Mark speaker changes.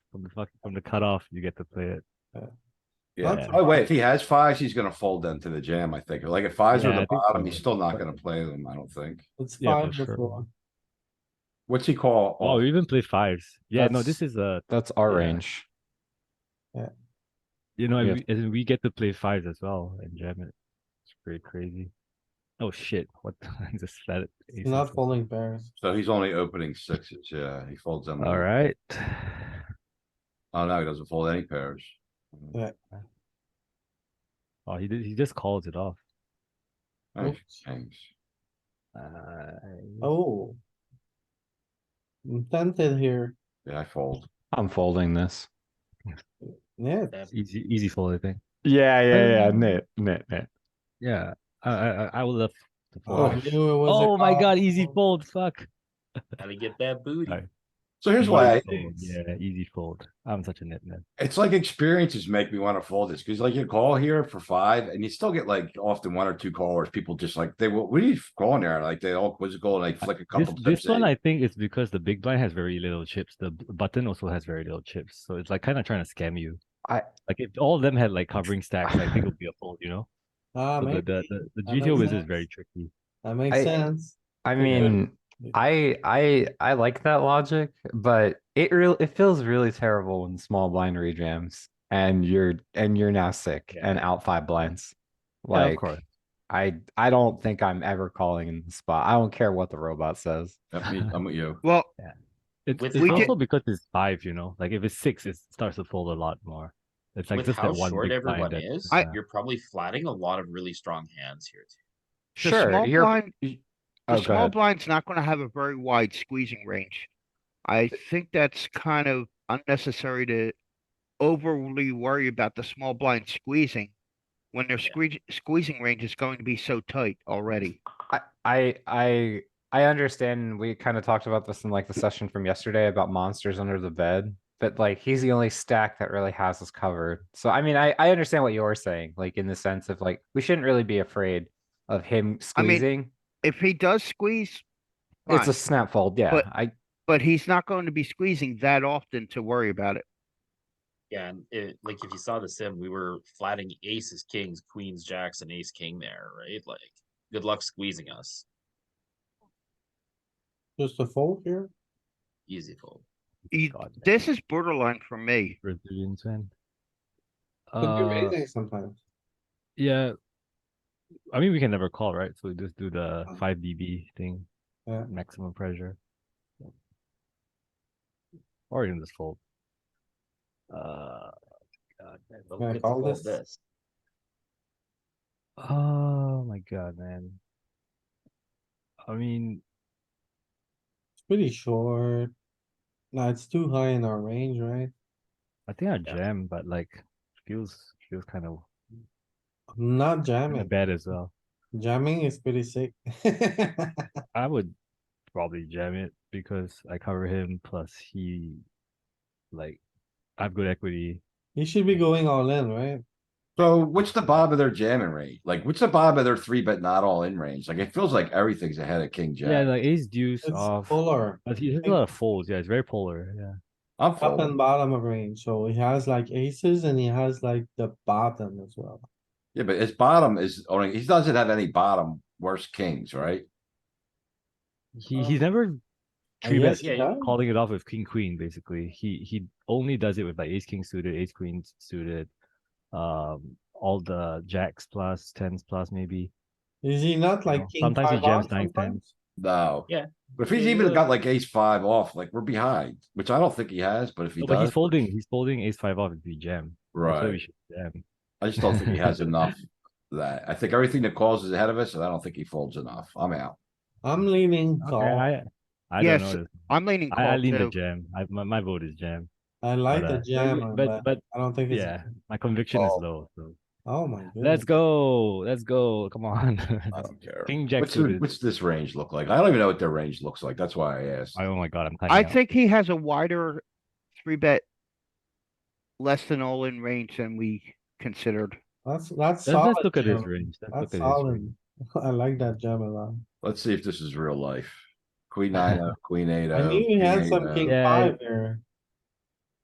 Speaker 1: From the fuck, from the cutoff, you get to play it.
Speaker 2: Yeah,
Speaker 1: Yeah.
Speaker 2: oh wait, if he has fives, he's gonna fold them to the jam, I think. Like if fives are
Speaker 1: Yeah, I
Speaker 2: the
Speaker 1: think so,
Speaker 2: bottom, he's
Speaker 1: but-
Speaker 2: still not gonna play them, I don't think.
Speaker 3: It's
Speaker 1: Yeah, for
Speaker 3: five
Speaker 1: sure.
Speaker 3: before.
Speaker 2: What's he call?
Speaker 1: Oh,
Speaker 2: off?
Speaker 1: we even played fives. Yeah, no, this
Speaker 4: That's-
Speaker 1: is a
Speaker 4: That's our
Speaker 1: Yeah.
Speaker 4: range.
Speaker 1: you know,
Speaker 4: Yeah.
Speaker 1: and we, and we get to play fives as well and jam it. It's pretty crazy. Oh shit! What I just fed it.
Speaker 3: It's not folding pairs.
Speaker 2: So he's only opening sixes, yeah, he folds them.
Speaker 1: All right.
Speaker 2: Oh, no, he doesn't fold any pairs.
Speaker 1: Oh, he did, he just calls it off.
Speaker 2: Nice,
Speaker 3: Oops.
Speaker 2: thanks.
Speaker 1: Uh,
Speaker 3: Oh. I'm tempted here.
Speaker 2: Yeah, I fold.
Speaker 4: I'm folding this.
Speaker 3: Yeah,
Speaker 1: it's easy, easy fold, I think.
Speaker 4: Yeah,
Speaker 1: yeah, yeah,
Speaker 4: Knit, knit, knit.
Speaker 1: Yeah, I, I, I- I would love to
Speaker 3: oh, I
Speaker 1: fold.
Speaker 3: knew it was a
Speaker 1: Oh my
Speaker 3: call.
Speaker 1: god, easy fold, fuck.
Speaker 5: Gotta get that booty.
Speaker 1: Alright.
Speaker 2: So here's
Speaker 1: Easy
Speaker 2: why, I-
Speaker 1: fold, Yeah, easy fold. I'm such a nitman.
Speaker 2: it's like experiences make me wanna fold this, cuz like you call here for five and you still get like often one or two callers, people just like, they, will- what are you calling there? Like they all quizzical and like flick a
Speaker 1: This,
Speaker 2: couple.
Speaker 1: this
Speaker 2: tips
Speaker 1: one
Speaker 2: in.
Speaker 1: I think is because the big blind has very little chips. The b- button also has very little chips, so it's like kind of trying to scam you.
Speaker 4: I-
Speaker 1: like if all of them had like covering stacks, I think it would be a fold. You know,
Speaker 3: Ah,
Speaker 1: So the,
Speaker 3: make,
Speaker 1: the, the, the
Speaker 3: That makes
Speaker 1: GTO whiz is
Speaker 3: sense.
Speaker 1: very tricky.
Speaker 3: that makes
Speaker 4: I-
Speaker 3: sense.
Speaker 4: I
Speaker 3: Yeah.
Speaker 4: mean, I, I, I like that logic, but it real, it feels really terrible when small blind rejams and you're, and you're now sick
Speaker 1: Yeah.
Speaker 4: and out five blinds.
Speaker 1: Yeah, of
Speaker 4: Like,
Speaker 1: course.
Speaker 4: I, I don't think I'm ever calling in the spot. I don't care what the robot says.
Speaker 2: Yep, me- I'm with you.
Speaker 6: Well,
Speaker 1: It's,
Speaker 5: With
Speaker 1: it's
Speaker 5: how-
Speaker 1: also because it's five. You know, like if it's six, it starts to fold a lot more. It's like
Speaker 5: With
Speaker 1: just
Speaker 5: how
Speaker 1: that one
Speaker 5: short
Speaker 1: big
Speaker 5: everyone
Speaker 1: blind. that-
Speaker 5: is,
Speaker 1: I-
Speaker 5: you're probably flatting a lot of really strong hands here. too.
Speaker 6: The
Speaker 4: Sure,
Speaker 6: small
Speaker 4: you're.
Speaker 6: blind-
Speaker 4: y-
Speaker 6: the
Speaker 4: Oh, go
Speaker 6: small
Speaker 4: ahead.
Speaker 6: blind's not gonna have a very wide squeezing range. I think that's kind of unnecessary to overly worry about the small blind squeezing. When their squeeze, squeezing range is going to be so tight already.
Speaker 4: I, I, I, I understand. We kind of talked about this in like the session from yesterday about monsters under the bed, but like he's the only stack that really has us covered. So I mean, I, I understand what you're saying, like in the sense of like we shouldn't really be afraid of him
Speaker 6: I mean,
Speaker 4: squeezing.
Speaker 6: If he does squeeze,
Speaker 4: it's a
Speaker 6: fine,
Speaker 4: snap fold, yeah.
Speaker 6: but-
Speaker 4: I
Speaker 6: but he's not going to be squeezing that often to worry about it.
Speaker 5: Yeah, and it, like if you saw the sim, we were flatting aces, kings, queens, jacks, and ace king there, right? Like, good luck squeezing us.
Speaker 3: Just a fold here.
Speaker 5: Easy fold.
Speaker 6: You-
Speaker 1: God, man.
Speaker 6: This is borderline for me.
Speaker 1: Brazilian twin.
Speaker 3: Could be
Speaker 1: Uh,
Speaker 3: raising sometimes.
Speaker 1: yeah. I mean, we can never call, right? So we just do the
Speaker 3: Um,
Speaker 1: five dB thing,
Speaker 3: yeah.
Speaker 1: maximum pressure, or even just fold. Uh,
Speaker 5: God, I don't
Speaker 3: Yeah,
Speaker 5: get to
Speaker 3: call
Speaker 5: fold
Speaker 3: this.
Speaker 5: this.
Speaker 1: oh my god, man. I mean,
Speaker 3: It's pretty short. No, it's too high in our range, right?
Speaker 1: I think I
Speaker 5: Yeah.
Speaker 1: jam, but like feels feels kind of
Speaker 3: I'm Not jamming.
Speaker 1: bad as well.
Speaker 3: Jamming is pretty sick.
Speaker 1: I would probably jam it because I cover him. Plus, he like I have good equity.
Speaker 3: You should be going all in, right?
Speaker 2: So what's the bottom of their jamming range? Like, what's the bottom of their three but not all in range? Like, it feels like everything's ahead of king
Speaker 1: Yeah,
Speaker 2: jack.
Speaker 1: like ace deuce
Speaker 3: It's
Speaker 1: off.
Speaker 3: polar,
Speaker 1: But he has a
Speaker 3: think-
Speaker 1: lot of folds. Yeah, it's very polar. Yeah.
Speaker 2: I'm
Speaker 3: up and
Speaker 2: folding.
Speaker 3: bottom of range, so he has like aces and he has like the bottom as well.
Speaker 2: Yeah, but his bottom is only, he doesn't have any bottom worse kings, right?
Speaker 1: He he's never
Speaker 3: I
Speaker 1: three
Speaker 3: guess
Speaker 1: bet
Speaker 3: he
Speaker 5: yeah,
Speaker 3: does.
Speaker 1: calling it off with king queen. Basically, he he only does it with like ace king suited, ace queen suited, um, all the jacks plus tens plus maybe.
Speaker 3: Is he not
Speaker 1: know,
Speaker 3: like king
Speaker 1: sometimes he
Speaker 3: five off
Speaker 1: jams nine, ten.
Speaker 3: sometimes?
Speaker 2: No.
Speaker 5: Yeah.
Speaker 2: But if he's
Speaker 5: Yeah,
Speaker 2: even
Speaker 5: yeah.
Speaker 2: got like ace five off, like we're behind, which I don't think he has, but if he
Speaker 1: No, but he's
Speaker 2: does,
Speaker 1: folding. He's folding ace five off if we jam. That's why we
Speaker 2: right?
Speaker 1: should jam.
Speaker 2: I just don't think he has enough of that. I think everything that calls is ahead of us and I don't think he folds enough. I'm out.
Speaker 3: I'm leaning
Speaker 1: Okay,
Speaker 3: call.
Speaker 1: I I
Speaker 6: Yes,
Speaker 1: don't know. this.
Speaker 6: I'm leaning
Speaker 1: I, I
Speaker 6: call
Speaker 1: lean the
Speaker 6: too.
Speaker 1: jam. I, my my vote is jam.
Speaker 3: I like
Speaker 1: but,
Speaker 3: the
Speaker 1: uh,
Speaker 3: jam,
Speaker 1: but
Speaker 3: but
Speaker 1: but
Speaker 3: I don't think it's.
Speaker 1: yeah, my conviction is
Speaker 2: Oh.
Speaker 1: low. So
Speaker 3: Oh my
Speaker 1: let's
Speaker 3: goodness.
Speaker 1: go. Let's go. Come on.
Speaker 2: I don't care.
Speaker 1: King jack
Speaker 2: What's, the-
Speaker 1: suited.
Speaker 2: what's this range look like? I don't even know what their range looks like. That's why I asked.
Speaker 1: Oh my god, I'm tired.
Speaker 6: I think he has a wider three bet. Less than all in range than we considered.
Speaker 3: That's, that's
Speaker 1: Let's,
Speaker 3: solid.
Speaker 1: let's look at his
Speaker 3: jam.
Speaker 1: range. Let's look
Speaker 3: That's
Speaker 1: at his range.
Speaker 3: solid. I like that jam a lot.
Speaker 2: Let's see if this is real life. Queen nine, oh, queen eight.
Speaker 3: I
Speaker 2: oh,
Speaker 3: knew he
Speaker 2: king
Speaker 3: had
Speaker 2: eight,
Speaker 3: some
Speaker 2: oh.
Speaker 3: king
Speaker 1: Yeah.
Speaker 3: five there.